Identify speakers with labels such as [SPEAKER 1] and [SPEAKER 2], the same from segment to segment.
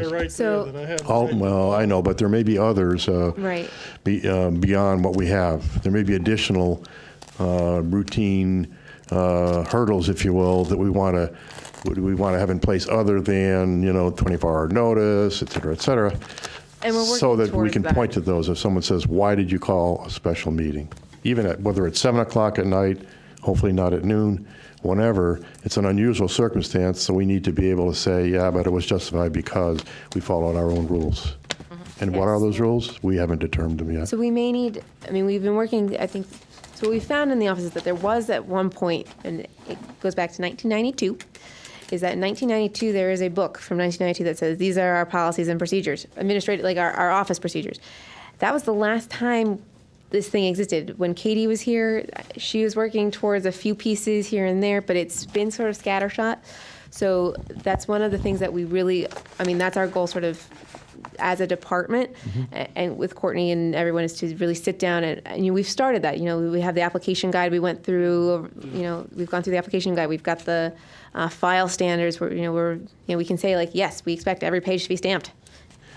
[SPEAKER 1] there right there
[SPEAKER 2] So-
[SPEAKER 1] that I had. to
[SPEAKER 3] All,
[SPEAKER 1] take.
[SPEAKER 3] well, I know, but there may be others uh,
[SPEAKER 2] Right.
[SPEAKER 3] be, uh, beyond what we have. There may be additional uh, routine uh, hurdles, if you will, that we want to we want to have in place other than you know 24-hour notice, et cetera, et cetera.
[SPEAKER 2] And we're working
[SPEAKER 3] so that we
[SPEAKER 2] towards
[SPEAKER 3] can
[SPEAKER 2] that.
[SPEAKER 3] point to those. If someone says, "Why did you call a special meeting?" Even at whether it's seven o'clock at night, hopefully not at noon, whenever it's an unusual circumstance. So we need to be able to say, "Yeah, but it was justified because we followed our own rules." And what are
[SPEAKER 2] Mm-hmm. Yes.
[SPEAKER 3] those rules? We haven't determined them yet.
[SPEAKER 2] So we may need, I mean, we've been working, I think, so what we found in the office is that there was at one point, and it goes back to 1992, is that in 1992, there is a book from 1992 that says, these are our policies and procedures, administrative, like our, our office procedures. That was the last time this thing existed. When Katie was here, she was working towards a few pieces here and there, but it's been sort of scattershot. So that's one of the things that we really, I mean, that's our goal sort of as a department
[SPEAKER 3] Mm-hmm.
[SPEAKER 2] a- and with Courtney and everyone is to really sit down and, and you know, we've started that. You know, we have the application guide we went through, you know, we've gone through the application guide. We've got the uh, file standards where, you know, we're, you know, we can say like, yes, we expect every page to be stamped.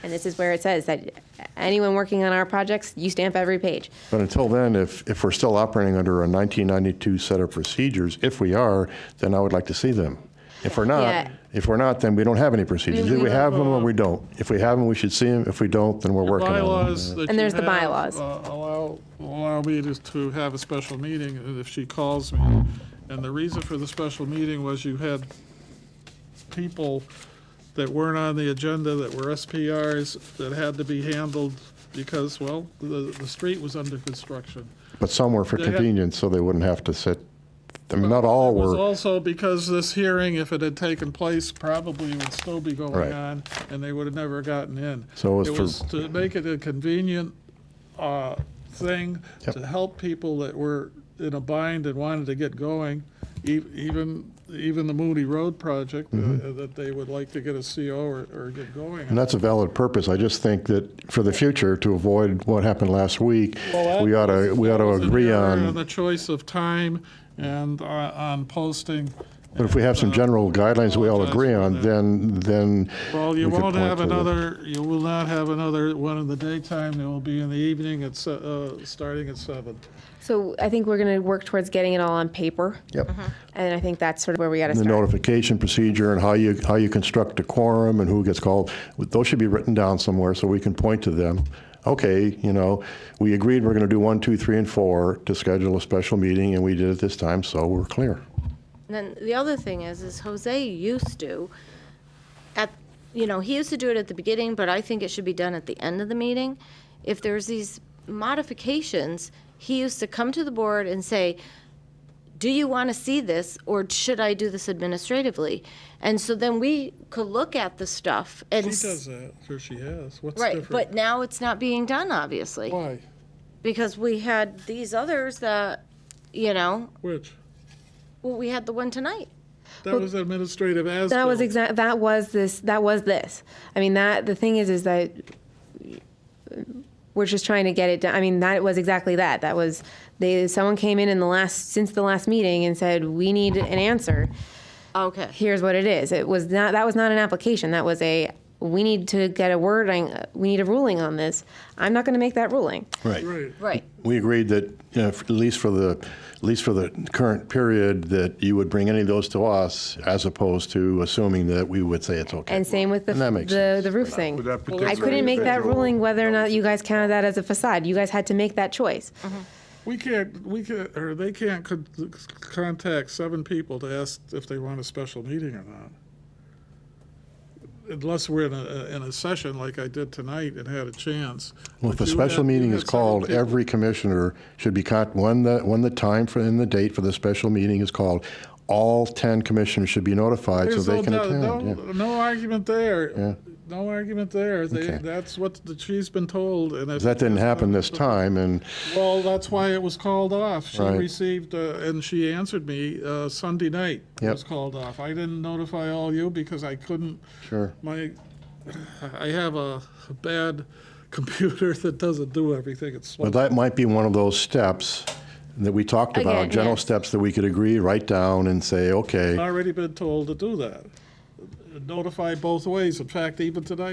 [SPEAKER 2] And this is where it says that anyone working on our projects, you stamp every page.
[SPEAKER 3] But until then, if, if we're still operating under a 1992 set of procedures, if we are, then I would like to see them. If we're not,
[SPEAKER 2] Yeah.
[SPEAKER 3] if we're not, then we don't have any procedures.
[SPEAKER 2] We-
[SPEAKER 3] Do we
[SPEAKER 2] we-
[SPEAKER 3] have them or we don't? If we have them, we should see them. If we don't, then we're working on them.
[SPEAKER 1] Bylaws that
[SPEAKER 2] And there's
[SPEAKER 1] you
[SPEAKER 2] the
[SPEAKER 1] have,
[SPEAKER 2] bylaws.
[SPEAKER 1] uh, Allow, allow me to, to have a special meeting and if she calls me. And the reason for the special meeting was you had people that weren't on the agenda, that were SPRs, that had to be handled because, well, the, the street was under construction.
[SPEAKER 3] But some were for
[SPEAKER 1] They had-
[SPEAKER 3] convenience, so they wouldn't have to sit. I mean, not all
[SPEAKER 1] It was
[SPEAKER 3] were,
[SPEAKER 1] also because this hearing, if it had taken place, probably would still be
[SPEAKER 3] Right.
[SPEAKER 1] going on, and they would have never gotten in.
[SPEAKER 3] So it was for-
[SPEAKER 1] to make it a convenient uh, thing
[SPEAKER 3] Yep.
[SPEAKER 1] to help people that were in a bind and wanted to get going, e- even, even the Moody Road project, uh, that they would like to get a CO or, or get going.
[SPEAKER 3] Mm-hmm. and that's a valid purpose. I just think that for the future, to avoid what happened last week,
[SPEAKER 1] Well, that
[SPEAKER 3] we ought to, we ought to
[SPEAKER 1] was an
[SPEAKER 3] agree
[SPEAKER 1] error
[SPEAKER 3] on.
[SPEAKER 1] in The choice of time and uh, on posting.
[SPEAKER 3] But if we have some
[SPEAKER 1] and, uh,
[SPEAKER 3] general guidelines we all
[SPEAKER 1] apologize
[SPEAKER 3] agree
[SPEAKER 1] for
[SPEAKER 3] on,
[SPEAKER 1] that.
[SPEAKER 3] then, then.
[SPEAKER 1] Well, you
[SPEAKER 3] we could
[SPEAKER 1] won't
[SPEAKER 3] point
[SPEAKER 1] have
[SPEAKER 3] to the-
[SPEAKER 1] another, you will not have another one in the daytime, there will be in the evening, it's, uh, starting at seven.
[SPEAKER 2] So I think we're going to work towards getting it all on paper.
[SPEAKER 3] Yep.
[SPEAKER 2] And I think that's sort of where we got to
[SPEAKER 3] The
[SPEAKER 2] start.
[SPEAKER 3] notification procedure and how you, how you construct a quorum and who gets called, those should be written down somewhere so we can point to them. Okay, you know, we agreed we're going to do one, two, three, and four to schedule a special meeting, and we did it this time, so we're clear.
[SPEAKER 4] And then the other thing is, is Jose used to, at, you know, he used to do it at the beginning, but I think it should be done at the end of the meeting. If there's these modifications, he used to come to the board and say, do you want to see this, or should I do this administratively? And so then we could look at the stuff and.
[SPEAKER 1] She
[SPEAKER 4] s-
[SPEAKER 1] does that, or she has, what's
[SPEAKER 4] Right,
[SPEAKER 1] different?
[SPEAKER 4] but now it's not being done, obviously,
[SPEAKER 1] Why,
[SPEAKER 4] because we had these others that, you know,
[SPEAKER 1] which,
[SPEAKER 4] well, we had the one tonight.
[SPEAKER 1] that was administrative as.
[SPEAKER 2] That was
[SPEAKER 1] built.
[SPEAKER 2] exact. That was this. That was this. I mean, that the thing is, is that we're just trying to get it done. I mean, that was exactly that. That was they. Someone came in in the last since the last meeting and said we need an answer.
[SPEAKER 4] Okay.
[SPEAKER 2] Here's what it is. It was not. That was not an application. That was a. We need to get a wording. We need a ruling on this. I'm not going to make that ruling.
[SPEAKER 1] Right,
[SPEAKER 4] Right.
[SPEAKER 3] We agreed that, you know, at least for the, at least for the current period, that you would bring any of those to us as opposed to assuming that we would say it's okay.
[SPEAKER 2] And same with the
[SPEAKER 3] And that makes
[SPEAKER 2] the,
[SPEAKER 3] sense.
[SPEAKER 2] the roof thing.
[SPEAKER 5] Would that
[SPEAKER 2] I
[SPEAKER 5] particular
[SPEAKER 2] couldn't make that
[SPEAKER 5] individual-
[SPEAKER 2] ruling whether or not you guys counted that as a facade. You guys had to make that choice.
[SPEAKER 1] we can't, we can't, or they can't con- contact seven people to ask if they want a special meeting or not. Unless we're in a, in a session like I did tonight and had a chance.
[SPEAKER 3] Well, if
[SPEAKER 1] But
[SPEAKER 3] a
[SPEAKER 1] you
[SPEAKER 3] special
[SPEAKER 1] had- you
[SPEAKER 3] meeting
[SPEAKER 1] had
[SPEAKER 3] is
[SPEAKER 1] seven
[SPEAKER 3] called,
[SPEAKER 1] people.
[SPEAKER 3] every commissioner should be con, when the, when the time for, and the date for the special meeting is called, all 10 commissioners should be notified so
[SPEAKER 1] There's
[SPEAKER 3] they
[SPEAKER 1] no
[SPEAKER 3] can
[SPEAKER 1] doubt-
[SPEAKER 3] attend.
[SPEAKER 1] no-
[SPEAKER 3] yeah.
[SPEAKER 1] No argument there.
[SPEAKER 3] Yeah.
[SPEAKER 1] No argument there. They-
[SPEAKER 3] Okay.
[SPEAKER 1] That's what the- she's been told, and if.
[SPEAKER 3] That didn't happen this time, and,
[SPEAKER 1] Well, that's why it was called off. She
[SPEAKER 3] Right.
[SPEAKER 1] received, uh, and she answered me uh, Sunday night. It
[SPEAKER 3] Yep.
[SPEAKER 1] was called off. I didn't notify all you because I couldn't,
[SPEAKER 3] sure.
[SPEAKER 1] my, I have a bad computer that doesn't do everything. It's
[SPEAKER 3] But that might be one of those steps that we talked about,
[SPEAKER 2] Again,
[SPEAKER 3] general
[SPEAKER 2] yes.
[SPEAKER 3] steps that we could agree, write down and say, okay.
[SPEAKER 1] already been told to do that. Notify both ways. In fact, even tonight,